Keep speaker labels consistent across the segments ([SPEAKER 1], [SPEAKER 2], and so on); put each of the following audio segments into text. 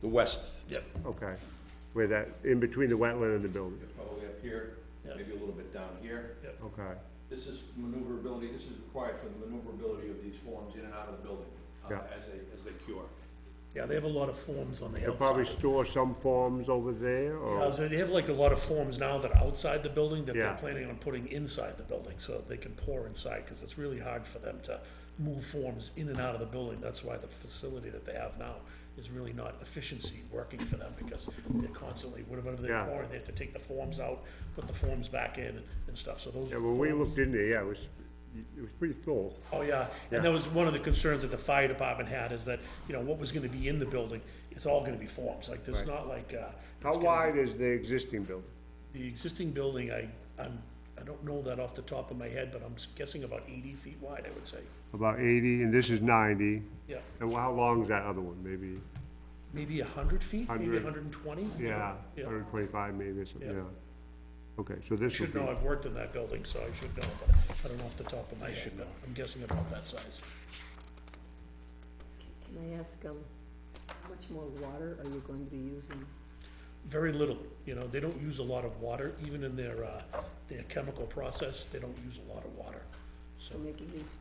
[SPEAKER 1] the west.
[SPEAKER 2] Yep.
[SPEAKER 3] Okay, where that, in between the wetland and the building,
[SPEAKER 1] Probably up here,
[SPEAKER 2] Yeah.
[SPEAKER 1] maybe a little bit down here.
[SPEAKER 3] okay,
[SPEAKER 1] This is maneuverability, this is required for the maneuverability of these forms in and out of the building, uh,
[SPEAKER 3] Yeah.
[SPEAKER 1] as they, as they cure.
[SPEAKER 2] Yeah, they have a lot of forms on the
[SPEAKER 3] they'll probably
[SPEAKER 2] outside.
[SPEAKER 3] store some forms over there,
[SPEAKER 2] Uh,
[SPEAKER 3] or,
[SPEAKER 2] so They have like a lot of forms now that are outside the building that they're
[SPEAKER 3] Yeah.
[SPEAKER 2] planning on putting inside the building so that they can pour inside, because it's really hard for them to move forms in and out of the building. That's why the facility that they have now is really not efficiency working for them, because they're constantly, whatever they're
[SPEAKER 3] Yeah.
[SPEAKER 2] pouring, they have to take the forms out, put the forms back in and stuff, so those
[SPEAKER 3] yeah,
[SPEAKER 2] are
[SPEAKER 3] when we
[SPEAKER 2] forms.
[SPEAKER 3] looked in there, yeah, it was, it was pretty full.
[SPEAKER 2] Oh, yeah, and that was one of the concerns that the fire department had, is that, you know, what was gonna be in the building, it's all gonna be forms, like, there's
[SPEAKER 3] Right.
[SPEAKER 2] not like, uh.
[SPEAKER 3] How
[SPEAKER 2] it's gonna-
[SPEAKER 3] wide is the existing building?
[SPEAKER 2] The existing building, I, I'm, I don't know that off the top of my head, but I'm guessing about eighty feet wide, I would say,
[SPEAKER 3] About eighty, and this is ninety,
[SPEAKER 2] yeah,
[SPEAKER 3] and how long is that other one, maybe,
[SPEAKER 2] maybe hundred feet, maybe
[SPEAKER 3] 100.
[SPEAKER 2] hundred and twenty?
[SPEAKER 3] yeah,
[SPEAKER 2] Yeah.
[SPEAKER 3] hundred twenty-five maybe, or something,
[SPEAKER 2] Yeah.
[SPEAKER 3] yeah. Okay, so this would
[SPEAKER 2] Should
[SPEAKER 3] be,
[SPEAKER 2] know, I've worked in that building, so I should know, but I don't know off the top of my head, but I'm guessing about that size.
[SPEAKER 4] Can I ask, um, how much more water are you going to be using?
[SPEAKER 2] Very little, you know, they don't use a lot of water, even in their, uh, their chemical process, they don't use a lot of water, so.
[SPEAKER 4] for making these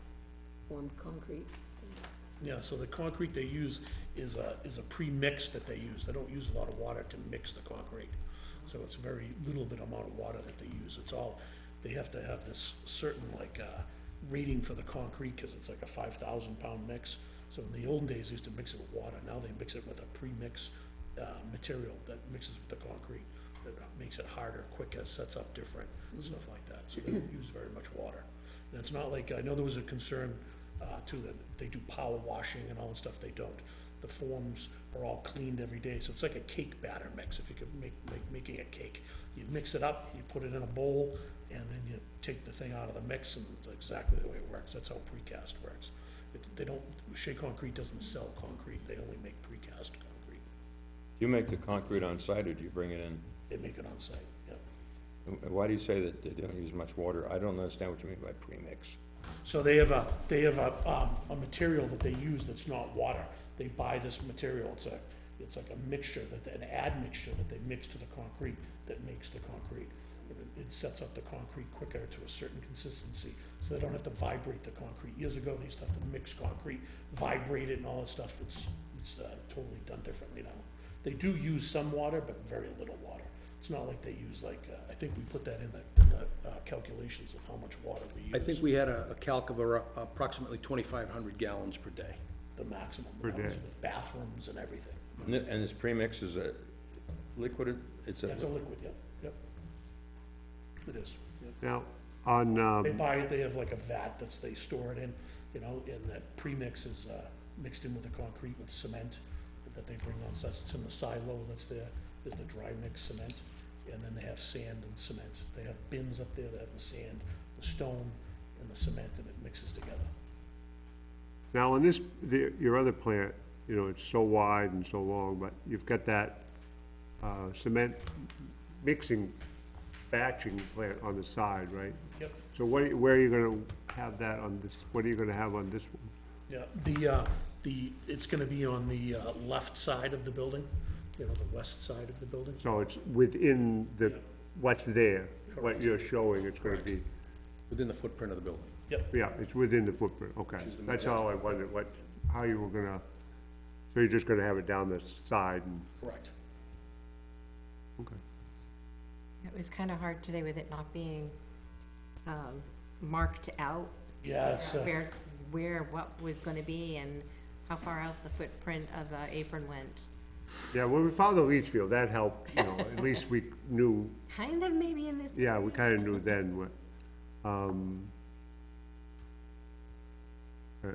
[SPEAKER 4] formed concrete?
[SPEAKER 2] Yeah, so the concrete they use is a, is a pre-mix that they use. They don't use a lot of water to mix the concrete. So it's very little bit amount of water that they use. It's all, they have to have this certain like, uh, rating for the concrete, cause it's like a five thousand pound mix. So in the old days, they used to mix it with water. Now they mix it with a pre-mix, uh, material that mixes with the concrete. That makes it harder, quicker, sets up different, stuff like that. So they don't use very much water. And it's not like, I know there was a concern uh, too, that they do power washing and all that stuff, they don't. The forms are all cleaned every day, so it's like a cake batter mix, if you could make, make, making a cake. You mix it up, you put it in a bowl, and then you take the thing out of the mix, and it's exactly the way it works, that's how precast works. It, they don't, Shea Concrete doesn't sell concrete, they only make precast concrete,
[SPEAKER 5] You make the concrete on site, or do you bring it in?
[SPEAKER 2] they make it on site, yeah.
[SPEAKER 5] And Why do you say that they don't use much water? I don't understand what you mean by premix.
[SPEAKER 2] So they have a, they have a, um, a material that they use that's not water. They buy this material, it's a, it's like a mixture, that, an admixture that they mix to the concrete that makes the concrete. And It it sets up the concrete quicker to a certain consistency, so they don't have to vibrate the concrete. Years ago, they used to have to mix concrete, vibrate it and all that stuff. It's, it's uh, totally done differently now. They do use some water, but very little water. It's not like they use like, uh, I think we put that in the, in the uh, calculations of how much water we use.
[SPEAKER 6] I think we had a a calc of ar- approximately 2,500 gallons per day.
[SPEAKER 2] the maximum
[SPEAKER 3] Per
[SPEAKER 2] levels
[SPEAKER 3] day.
[SPEAKER 2] with bathrooms and everything.
[SPEAKER 5] And it- and this premix is a liquid, it's
[SPEAKER 2] That's a
[SPEAKER 5] a,
[SPEAKER 2] liquid, yep, yep. It is, yep.
[SPEAKER 3] now, on, um.
[SPEAKER 2] They buy it, they have like a vat that's, they store it in, you know, and that premix is, uh, mixed in with the concrete with cement that they bring on, so it's in the silo that's there, there's the dry mix cement, and then they have sand and cement. They have bins up there that have the sand, the stone, and the cement, and it mixes together.
[SPEAKER 3] Now, on this, the, your other plant, you know, it's so wide and so long, but you've got that, uh, cement mixing, batching plant on the side, right?
[SPEAKER 2] Yep.
[SPEAKER 3] So what, are you- where are you gonna have that on this, what are you gonna have on this one?
[SPEAKER 2] Yeah, the, uh, the, it's gonna be on the, uh, left side of the building, you know, the west side of the building.
[SPEAKER 3] So it's within the,
[SPEAKER 2] Yeah.
[SPEAKER 3] what's there,
[SPEAKER 2] Correct.
[SPEAKER 3] what you're showing, it's gonna be,
[SPEAKER 6] Within the footprint of the building.
[SPEAKER 2] Yep,
[SPEAKER 3] yeah, it's within the footprint, okay. That's all I wondered, what, how you were gonna, so you're just gonna have it down the side and,
[SPEAKER 2] correct.
[SPEAKER 3] okay.
[SPEAKER 7] It was kind of hard today with it not being um, marked out,
[SPEAKER 2] Yeah, it's, uh,
[SPEAKER 7] where, where, what was going to be and how far out the footprint of the apron went.
[SPEAKER 3] Yeah, when we found the leach field, that helped, you know, at least we knew,
[SPEAKER 7] Kind of maybe in this.
[SPEAKER 3] yeah, we kinda knew then what, um, uh,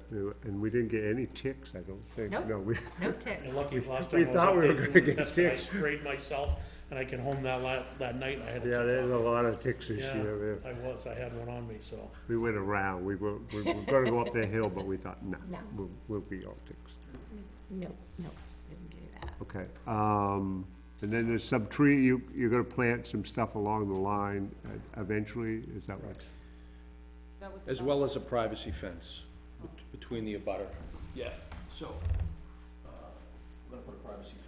[SPEAKER 3] and we didn't get any ticks, I don't think,
[SPEAKER 7] Nope.
[SPEAKER 3] no, we,
[SPEAKER 7] No tip.
[SPEAKER 2] you're lucky last
[SPEAKER 3] We
[SPEAKER 2] time I was
[SPEAKER 3] thought
[SPEAKER 2] up
[SPEAKER 3] we
[SPEAKER 2] there
[SPEAKER 3] were
[SPEAKER 2] doing
[SPEAKER 3] gonna
[SPEAKER 2] the
[SPEAKER 3] get
[SPEAKER 2] test, but I
[SPEAKER 3] ticked.
[SPEAKER 2] sprayed myself, and I came home that la, that night, and I had a.
[SPEAKER 3] yeah, there's a lot of ticks this
[SPEAKER 2] Yeah,
[SPEAKER 3] year, yeah.
[SPEAKER 2] I was, I had one on me, so,
[SPEAKER 3] we went around, we were, we were gonna go up the hill, but we thought, nah,
[SPEAKER 7] No.
[SPEAKER 3] we'll, we'll be all ticks.
[SPEAKER 7] No, no, didn't do that.
[SPEAKER 3] Okay, um, and then there's some tree, you, you're gonna plant some stuff along the line uh, eventually, is that what?
[SPEAKER 6] As well as a privacy fence bet- between the abutter.
[SPEAKER 2] yeah.
[SPEAKER 6] So,
[SPEAKER 1] I'm uh, gonna put a privacy